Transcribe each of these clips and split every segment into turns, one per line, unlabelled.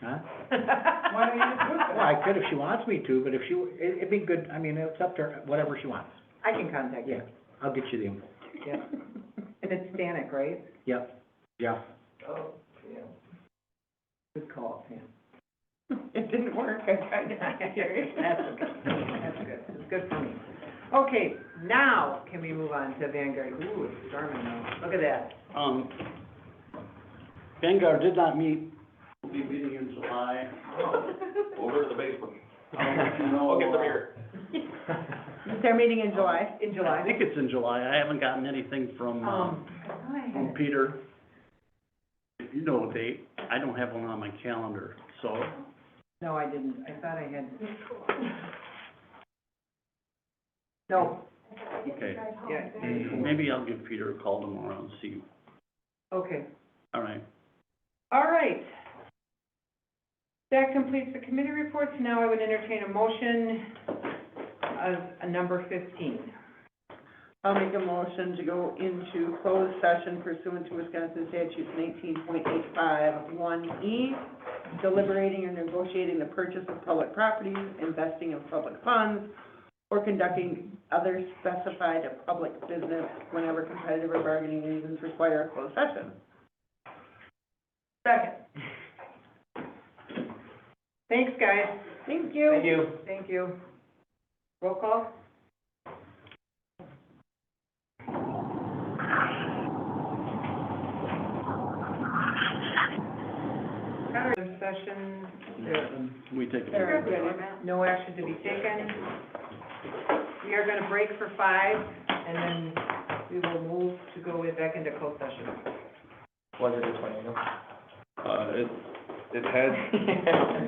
Huh?
Why don't you just do it then?
Well, I could if she wants me to, but if she, it- it'd be good, I mean, it's up to her, whatever she wants.
I can contact you.
Yeah, I'll get you the info.
Yeah. And it's Stanek, right?
Yep, Jeff.
Oh, yeah. Good call, Pam. It didn't work, I tried to get it. That's okay, that's good, it's good for me. Okay, now can we move on to Vanguard? Ooh, it's storming now, look at that.
Um, Vanguard did not meet, will be meeting in July.
Oh.
Over to the basement.
I'll let you know,
I'll get them
uh,
here.
Is their meeting in July? In
I
July.
think it's in July, I haven't gotten anything from, uh,
Um,
from Peter. If you know a date, I don't have one on my calendar, so,
no, I didn't, I thought I had. No,
okay.
yeah,
Maybe I'll give Peter a call tomorrow and see,
okay.
all right.
All right. That completes the committee reports. Now I would entertain a motion of a number fifteen.
I'll make a motion to go into closed session pursuant to Wisconsin statutes nineteen point eight five one E, deliberating or negotiating the purchase of public properties, investing in public funds, or conducting other specified public business whenever competitive or bargaining reasons require a closed session.
Second. Thanks, guys.
Thank you.
you. Thank you. Roll call? Other session, there-
Can we take a
Sure.
break?
No action to be taken. We are gonna break for five, and then we will move to go back into closed session.
Was it a tornado?
Uh, it, it had,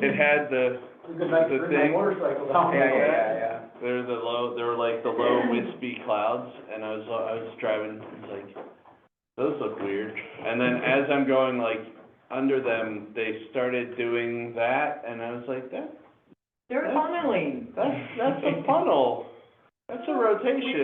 it had the, the thing,
Yeah, yeah, yeah.
there were the low, there were like the low wispy clouds, and I was, I was driving, I was like, those look weird. And then as I'm going like under them, they started doing that, and I was like, that,
They're funneling.
that's, that's a funnel, that's a rotation.